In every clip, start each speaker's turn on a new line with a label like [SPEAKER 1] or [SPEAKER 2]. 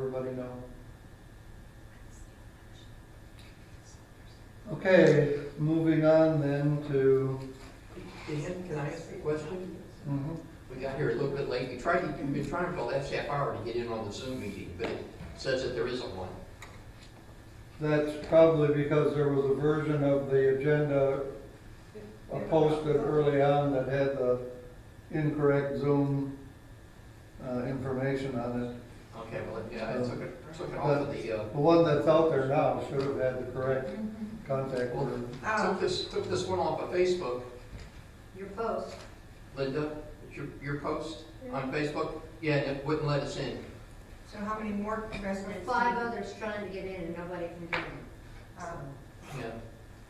[SPEAKER 1] Anybody know? Okay, moving on then to,
[SPEAKER 2] Dan, can I ask you a question?
[SPEAKER 1] mhm.
[SPEAKER 2] We got here a little bit late. We tried, to- we've been trying for the last half hour to get in on the Zoom meeting, but it says that there isn't one.
[SPEAKER 1] that's probably because there was a version of the agenda uh, posted early on that had the incorrect Zoom uh, information on it.
[SPEAKER 2] Okay, well, yeah, I took it, took it off of the, uh,
[SPEAKER 1] The one that's out there now should have had the correct contact.
[SPEAKER 2] Well,
[SPEAKER 1] word.
[SPEAKER 3] Uh,
[SPEAKER 2] took this, took this one off of Facebook.
[SPEAKER 4] Your post.
[SPEAKER 2] Linda, your, your post on Facebook? Yeah, and it wouldn't let us in.
[SPEAKER 3] So how many more residents?
[SPEAKER 4] Five others trying to get in and nobody can get in.
[SPEAKER 3] Um,
[SPEAKER 2] Yeah.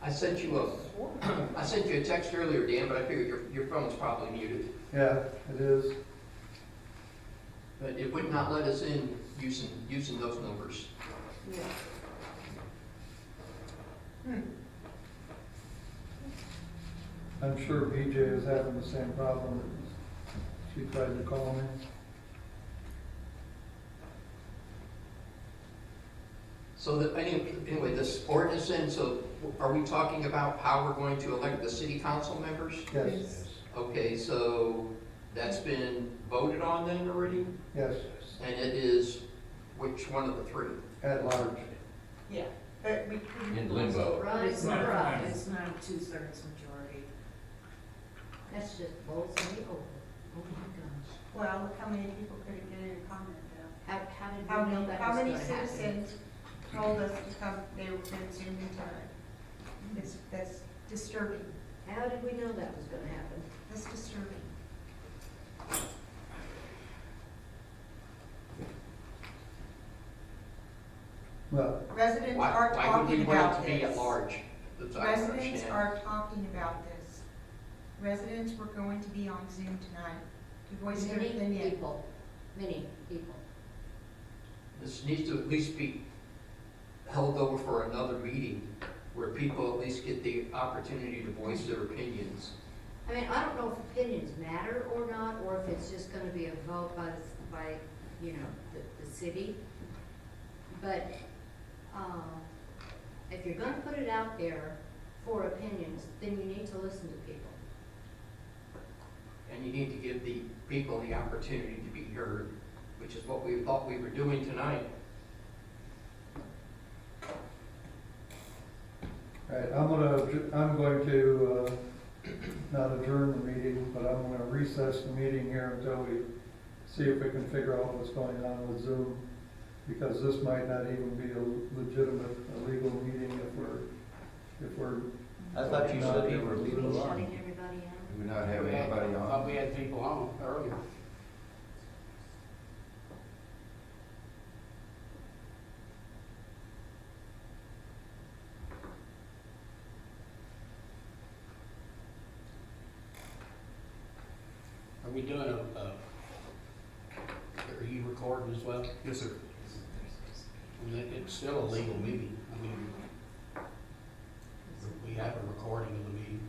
[SPEAKER 2] I sent you a, I sent you a text earlier, Dan, but I figured your, your phone's probably muted.
[SPEAKER 1] Yeah, it is.
[SPEAKER 2] But it would not let us in using, using those numbers.
[SPEAKER 1] I'm sure BJ is having the same problem. She tried to call me.
[SPEAKER 2] So that, any- anyway, this ordinance then, so are we talking about how we're going to elect the city council members?
[SPEAKER 1] Yes,
[SPEAKER 2] Okay, so that's been voted on then already?
[SPEAKER 1] yes,
[SPEAKER 2] And it is which one of the three?
[SPEAKER 1] at large.
[SPEAKER 5] Yeah.
[SPEAKER 3] But we, we-
[SPEAKER 6] In
[SPEAKER 2] Oh.
[SPEAKER 6] limbo.
[SPEAKER 4] Right,
[SPEAKER 5] It's not,
[SPEAKER 4] right.
[SPEAKER 5] it's not a two-thirds majority.
[SPEAKER 4] That's just bowls me over. Oh my
[SPEAKER 3] well, how many people could have given a comment though?
[SPEAKER 4] gosh. How, how did
[SPEAKER 3] How
[SPEAKER 4] we know
[SPEAKER 3] many,
[SPEAKER 4] that
[SPEAKER 3] how
[SPEAKER 4] was
[SPEAKER 3] many
[SPEAKER 4] gonna happen?
[SPEAKER 3] citizens told us to come, they were going to Zoom in time? It's, that's disturbing,
[SPEAKER 4] How did we know that was gonna happen?
[SPEAKER 3] that's disturbing.
[SPEAKER 1] Well,
[SPEAKER 3] Residents
[SPEAKER 2] Why,
[SPEAKER 3] are
[SPEAKER 2] why would we
[SPEAKER 3] talking
[SPEAKER 2] want
[SPEAKER 3] about
[SPEAKER 2] it
[SPEAKER 3] this.
[SPEAKER 2] to be at large? That's what I don't
[SPEAKER 3] Residents
[SPEAKER 2] understand.
[SPEAKER 3] are talking about this. Residents were going to be on Zoom tonight to voice their
[SPEAKER 4] Many
[SPEAKER 3] opinion.
[SPEAKER 4] people, many people.
[SPEAKER 2] This needs to at least be held over for another meeting where people at least get the opportunity to voice their opinions.
[SPEAKER 4] I mean, I don't know if opinions matter or not, or if it's just gonna be a vote by, the- by, you know, the, the city. But, um, if you're gonna put it out there for opinions, then you need to listen to people.
[SPEAKER 2] And you need to give the people the opportunity to be heard, which is what we thought we were doing tonight.
[SPEAKER 1] all right, I'm gonna, adj- I'm going to, uh, not adjourn the meeting, but I'm gonna recess the meeting here until we see if we can figure out what's going on with Zoom, because this might not even be a legitimate, a legal meeting if we're, if we're,
[SPEAKER 6] I thought you said they were
[SPEAKER 4] Shutting
[SPEAKER 6] legal on.
[SPEAKER 4] everybody out.
[SPEAKER 6] Do not have anybody
[SPEAKER 7] I
[SPEAKER 6] on.
[SPEAKER 7] Thought we had people on earlier. Are we doing a, a, are you recording as well?
[SPEAKER 8] Yes, sir.
[SPEAKER 7] I mean, It's still a legal meeting. I mean, we have a recording of the meeting.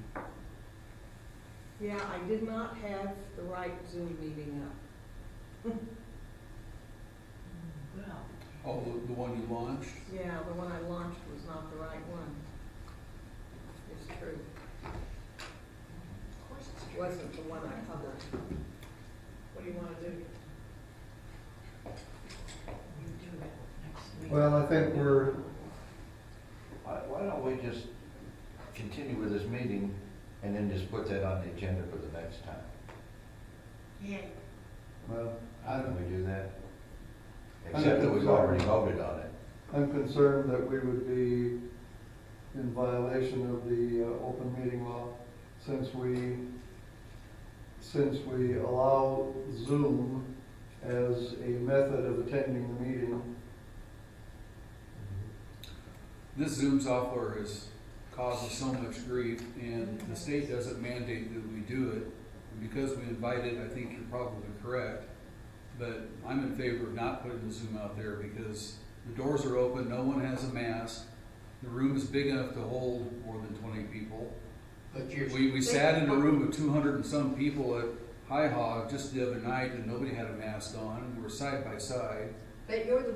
[SPEAKER 9] Yeah, I did not have the right Zoom meeting up.
[SPEAKER 8] Oh, the, the one you launched?
[SPEAKER 9] Yeah, the one I launched was not the right one. It's true. Wasn't the one I published. What do you wanna do?
[SPEAKER 1] well, uh, I think we're,
[SPEAKER 6] Why, why don't we just continue with this meeting and then just put that on the agenda for the next time?
[SPEAKER 3] Yeah,
[SPEAKER 1] well,
[SPEAKER 6] How do we do that?
[SPEAKER 1] I
[SPEAKER 6] Except that
[SPEAKER 1] think
[SPEAKER 6] we've
[SPEAKER 1] so.
[SPEAKER 6] already voted on it.
[SPEAKER 1] I'm concerned that we would be in violation of the uh, open meeting law since we, since we allow Zoom as a method of attending the meeting.
[SPEAKER 8] This Zoom software is causing so much grief, and the state doesn't mandate that we do it. And Because we invite it, I think you're probably correct, but I'm in favor of not putting the Zoom out there because the doors are open, no one has a mask, the room is big enough to hold more than twenty people.
[SPEAKER 2] But you're,
[SPEAKER 8] We, we sat in a room of two hundred and some people at High Hog just the other night, and nobody had a mask on, we were side by side.
[SPEAKER 4] But you're the